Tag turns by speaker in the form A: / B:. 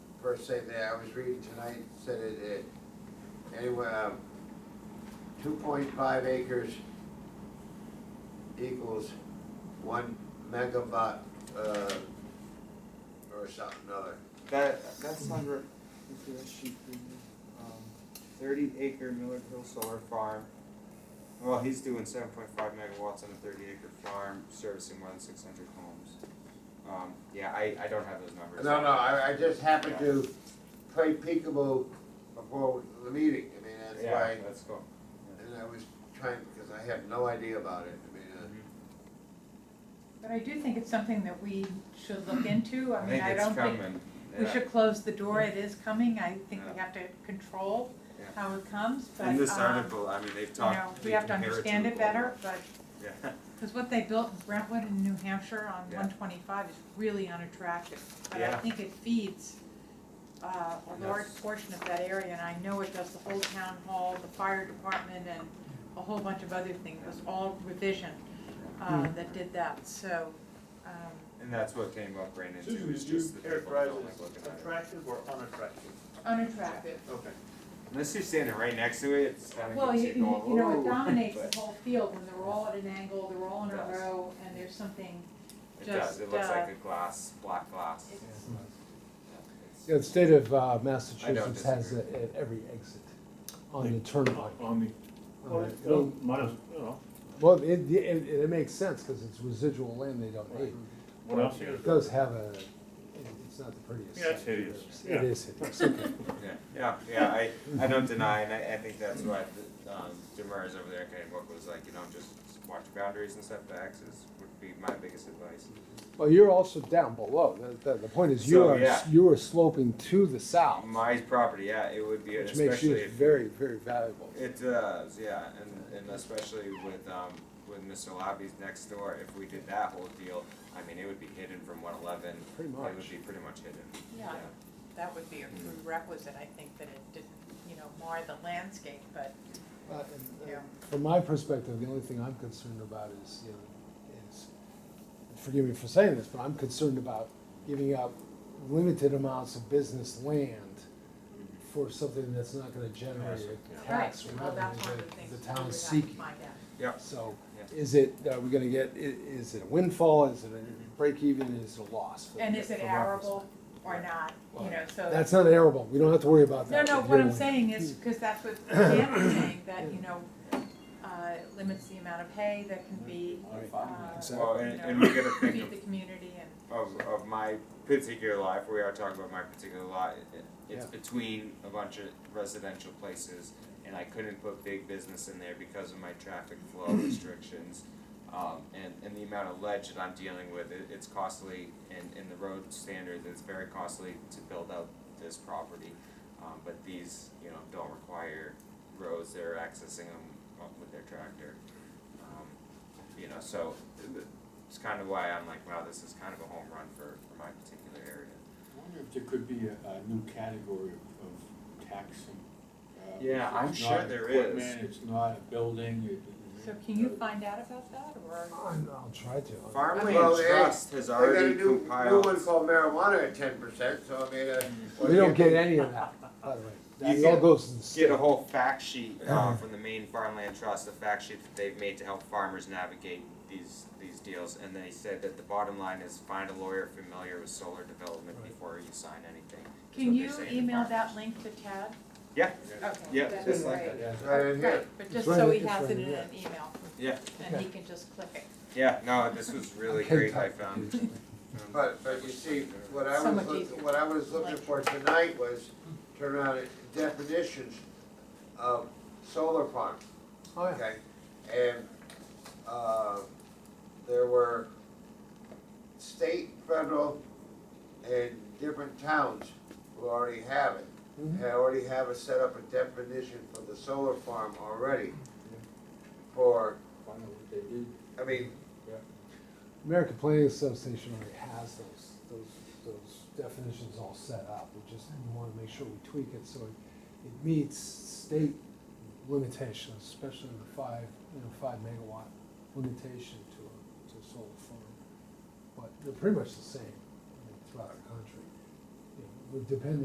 A: first thing that I was reading tonight said it, it, anywhere, two point five acres equals one megawatt, uh, or something other.
B: That, that's under, let's see, that sheet for you. Um, thirty acre Miller Hill Solar Farm. Well, he's doing seven point five megawatts on a thirty acre farm servicing more than six hundred homes. Um, yeah, I, I don't have those numbers.
A: No, no, I, I just happened to play peekaboo before the meeting, I mean, that's
B: Yeah,
A: why,
B: that's cool.
A: and I was trying, because I had no idea about it, I mean, uh.
C: But I do think it's something that we should look into, I
B: I
C: mean,
B: think
C: I
B: it's
C: don't think,
B: coming,
C: we
B: yeah,
C: should close the door, it is coming, I think we
B: Yeah.
C: have to control
B: Yeah.
C: how it comes, but, um,
B: in
C: you
B: this article, I mean, they've
C: know,
B: talked, they
C: we have to
B: compare it to
C: understand it better, but,
B: Yeah,
C: because what they built in Brentwood in New Hampshire on
B: Yeah.
C: one twenty-five is really unattractive. But I
B: Yeah.
C: think it feeds, uh, a
B: And
C: large
B: that's-
C: portion of that area, and I know it does the whole town hall, the fire department, and a whole bunch of other things, it was all revision, uh,
B: Mm.
C: that did that, so, um,
B: and that's what came up right into,
D: Susan,
B: is
D: would you
B: just the people
D: characterize
B: don't
D: it
B: like looking
D: as
B: at it.
D: attractive or unattractive?
C: unattractive.
D: Okay.
B: Unless you're standing right next to it, it's kind of
C: Well,
B: gets
C: you,
B: you
C: you
B: going,
C: you know, it
B: "Whoa,"
C: dominates
B: but
C: the whole field when they're all at an angle, they're all in a
B: Yes.
C: row, and there's something,
B: It does,
C: just,
B: it looks
C: uh,
B: like a glass, black glass.
C: it's,
B: Yeah,
E: Yeah, the state of uh,
B: I don't
E: Massachusetts has
B: disagree.
E: it at every exit on the turnpike.
F: On the,
E: Well, it-
F: well, might as, you know,
E: Well, it, it, it makes sense because it's residual land they don't need.
F: what else here?
E: It does have a, it- it's not the prettiest.
F: Yeah, it's
E: sight.
F: hideous.
E: It
F: Yeah.
E: is hideous, okay.
B: Yeah, yeah, yeah, I, I don't deny, and I, I think that's why, the, um, Demers over there in Kennebunk was like, you know, just watch boundaries and setbacks is, would be my biggest advice.
E: Well, you're also down below. The, the, the point is you
B: So,
E: are,
B: yeah.
E: you are sloping to the south,
B: My property, yeah, it would be,
E: which makes you
B: especially if
E: very, very valuable.
B: It does, yeah, and, and especially with, um, with Mr. Labby's next door, if we did that whole deal, I mean, it would be hidden from one eleven.
E: Pretty
B: It would
E: much.
B: be pretty much hidden,
C: yeah,
B: yeah.
C: that would be a prerequisite, I think, that it didn't, you know, mar the landscape, but,
E: Uh, and-
C: yeah.
E: From my perspective, the only thing I'm concerned about is, you know, is, forgive me for saying this, but I'm concerned about giving up limited amounts of business land for something that's not gonna generate a tax
C: Right, well, that's one
E: revenue
C: of
E: that
C: the
E: the
C: things that we
E: town
C: would
E: is
C: have to
E: seeking.
C: find out.
E: So,
B: Yeah.
E: is it, are we gonna get, i- is it a windfall, is it a break even, is it a loss? for-
C: And is it
E: from our
C: arable or not, you know, so.
E: perspective? That's not arable, we don't have to worry about
C: No,
E: that.
C: no,
E: We're
C: what
E: dealing
C: I'm
E: with it.
C: saying is, because that's what Dan was saying, that, you know, uh, it limits the amount of hay that can be, uh,
E: Exactly.
B: Well, and, and we gotta think
C: feed the community and.
B: of, of, of my particular life, we are talking about my particular lot, it, it- it's
E: Yeah.
B: between a bunch of residential places, and I couldn't put big business in there because of my traffic flow restrictions. Um, and, and the amount of ledge that I'm dealing with, it, it's costly, and, and the road standards, it's very costly to build out this property. Um, but these, you know, don't require roads, they're accessing them up with their tractor. Um, you know, so th- it's kind of why I'm like, wow, this is kind of a home run for, for my particular area.
G: I wonder if there could be a, a new category of, of taxing. uh,
B: Yeah,
G: it's
B: I'm
G: not
B: sure there is.
G: equipment, It's not a building, it- it-
C: So can you find out about that, or?
E: I'm- I'll try to.
B: Farmland
A: Well, they-
B: Trust has
A: I got a new,
B: already
A: new
B: compiled.
A: one called marijuana at ten percent, so I mean, uh.
E: We don't get any of that, by the way. That
B: You
E: all
B: get-
E: goes to the
B: Get
E: state.
B: a whole fact sheet uh, from the Maine Farmland Trust, a fact sheet that they've made to help farmers navigate these these deals. And then he said that the bottom line is find a lawyer familiar with solar development
E: Right.
B: before you sign anything. is
C: Can
B: what they're
C: you
B: saying to
C: email that
B: farmers.
C: link to Tad?
B: Yeah.
C: Okay.
B: Yeah,
C: that'd
B: just
C: be
B: like
C: great.
B: that.
G: Yeah.
A: Right in here.
C: Right, but
E: It's
C: just
E: right
C: so
E: in-
C: he
E: it's
C: has it
E: right in
C: in
E: there.
C: an email,
B: Yeah,
C: and
E: Okay.
C: he can just click it.
B: yeah. No, this was really great. I found.
A: But, but you see, what I was,
C: Somewhat
A: look-
C: easier.
A: what I was looking for tonight was turn around at definitions of solar farm,
E: Oh, yeah.
A: okay? And, uh, there were state, federal, and different towns who already have it.
E: Mhm.
A: They already have a set up a definition for the solar farm already.
E: Mm-hmm.
A: For,
G: Find out what they did.
A: I mean,
E: American Planning Association already has those, those, those definitions all set up. We just wanna make sure we tweak it so it, it meets state limitations, especially the five, you know, five megawatt limitation to a, to a solar farm. But they're pretty much the same I mean, throughout the country. You know, We're depending